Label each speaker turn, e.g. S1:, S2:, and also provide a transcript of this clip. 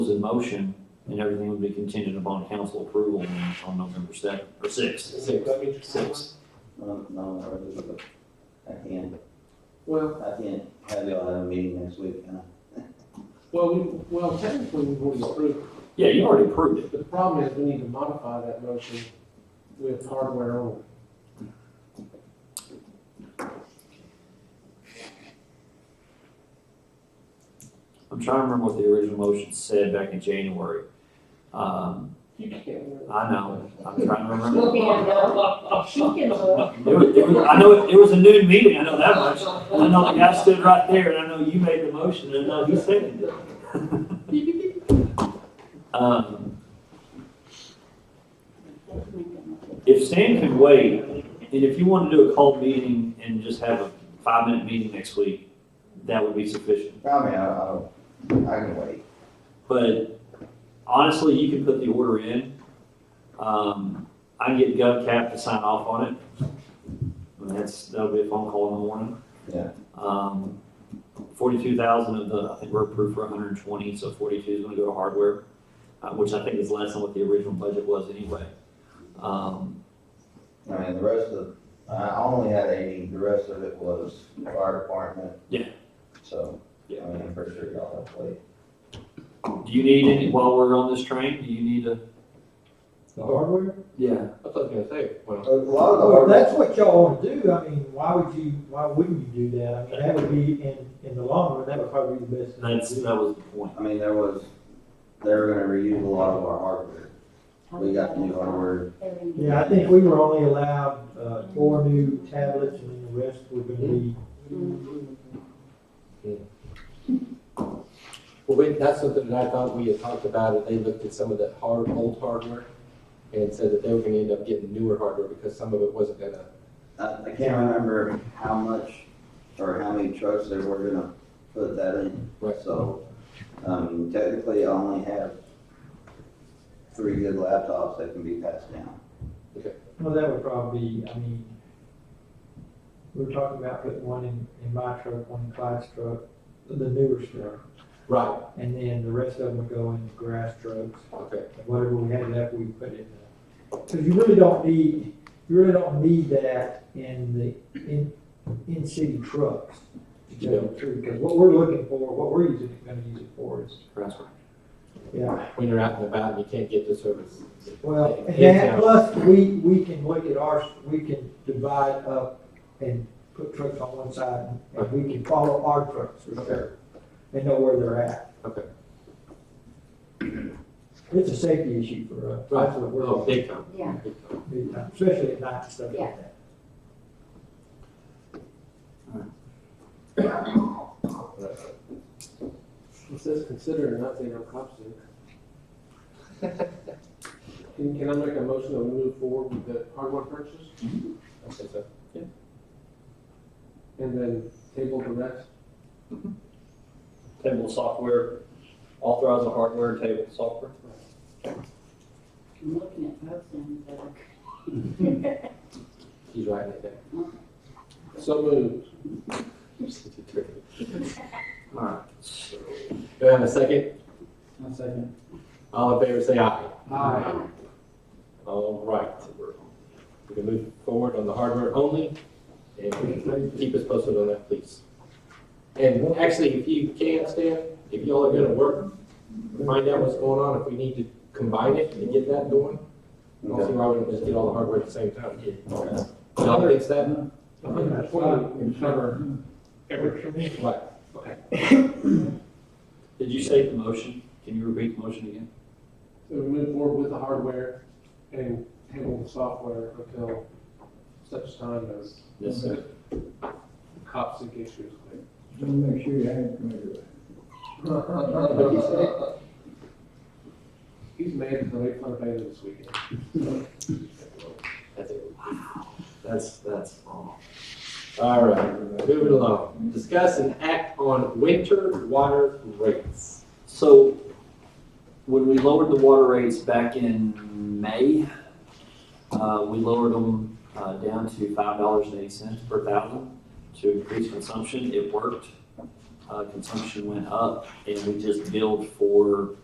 S1: in motion, and everything would be contingent upon council approval on- on November seventh, or sixth.
S2: Six.
S3: That means
S2: Six.
S4: No, no, or this is a- I can't,
S2: Well,
S4: I can't have y'all have a meeting next week, can I?
S2: well, we, well, technically, we've already approved
S1: Yeah, you already approved it.
S2: it. The problem is, we need to modify that motion with hardware only.
S1: I'm trying to remember what the original motion said back in January. Um,
S2: You can't.
S1: I know, I'm trying to remember.
S5: She can look, she can look.
S1: It was, it was, I know, it- it was a noon meeting, I know that much. And I know the guy stood right there, and I know you made the motion, and I know he seconded it. Um, if Stan can wait, and if you want to do a call meeting and just have a five-minute meeting next week, that would be sufficient.
S4: I mean, I, I don't, I can wait.
S1: But honestly, you can put the order in. Um, I can get GovCap to sign off on it. And that's, that'll be a phone call in the morning.
S4: Yeah.
S1: Um, forty-two thousand of the, I think we're approved for hundred and twenty, so forty-two is gonna go to hardware, uh, which I think is less than what the original budget was anyway. Um,
S4: I mean, the rest of, I only had eighty, the rest of it was fire department.
S1: Yeah.
S4: So, I
S1: Yeah.
S4: mean, I'm pretty sure y'all have played.
S1: do you need any, while we're on this train, do you need a?
S6: The hardware?
S1: Yeah.
S2: I thought you were gonna say, well.
S4: A lot of the
S6: Well, if
S4: hardware,
S6: that's what y'all want to do, I mean, why would you, why wouldn't you do that? I mean, that would be, in, in the long run, that would probably be the best. thing to
S1: That's,
S6: do.
S1: that was the point.
S4: I mean, there was, they were gonna reuse a lot of our hardware. We got new hardware,
S6: Yeah, I think we were only allowed, uh, four new tablets and then the rest were gonna be,
S3: Well, wait, that's something that I thought we had talked about, that they looked at some of the hard, old hardware and said that they were gonna end up getting newer hardware because some of it wasn't gonna,
S4: I, I can't remember how much or how many trucks they were gonna put that in.
S3: Right.
S4: So, um, technically, I only have three good laptops that can be passed down.
S6: well, that would probably, I mean, we were talking about putting one in, in my truck, one in Clyde's truck, the newer truck.
S3: right,
S6: And then the rest of them would go in the grass trucks.
S3: okay,
S6: whatever we had left, we put in the, because you really don't need, you really don't need that in the, in, in city trucks. To tell you the truth, because what we're looking for, what we're using, gonna use it for is,
S1: That's right.
S6: yeah,
S3: when you're out and about and you can't get the service.
S6: well, and
S3: Yeah.
S6: that, plus, we, we can look at ours, we can divide up and put trucks on one side, and we can follow our trucks for sure, and know where they're at.
S3: Okay.
S6: It's a safety issue for us, that's what we're.
S3: Oh, big time,
S5: Yeah,
S3: big time.
S6: big time, especially at night and stuff like that.
S2: It says consider and not say no opposite. Can, can I make a motion to move forward with the hardware purchase
S3: Okay, so,
S2: and then table the rest?
S1: Table software, authorize the hardware, table software.
S5: I'm looking at both ends of it.
S3: he's right right there.
S2: So moved.
S1: All right, so
S3: Do I have a second?
S2: One second.
S3: All in favor, say aye.
S2: Aye.
S3: All right, we're, we can move forward on the hardware only, and we can keep us posted on that, please. And actually, if you can, Stan, if y'all are gonna work, find out what's going on, if we need to combine it and get that going. I don't see why we don't just get all the hardware at the same time. Y'all fix that?
S2: Hundred twenty would cover everything.
S3: Right.
S1: did you say the motion? Can you repeat the motion again?
S2: So we move forward with the hardware and table the software until such time as
S1: Yes, sir.
S2: cops and issues.
S7: Make sure you have committed.
S2: He's made it to make fun of Bailey this weekend.
S3: That's it.
S1: That's, that's all.
S3: All right, moving along. Discuss and act on winter water rates.
S1: So when we lowered the water rates back in May, uh, we lowered them, uh, down to five dollars and eighty cents per thousand to increase consumption. It worked. Uh, consumption went up and we just billed for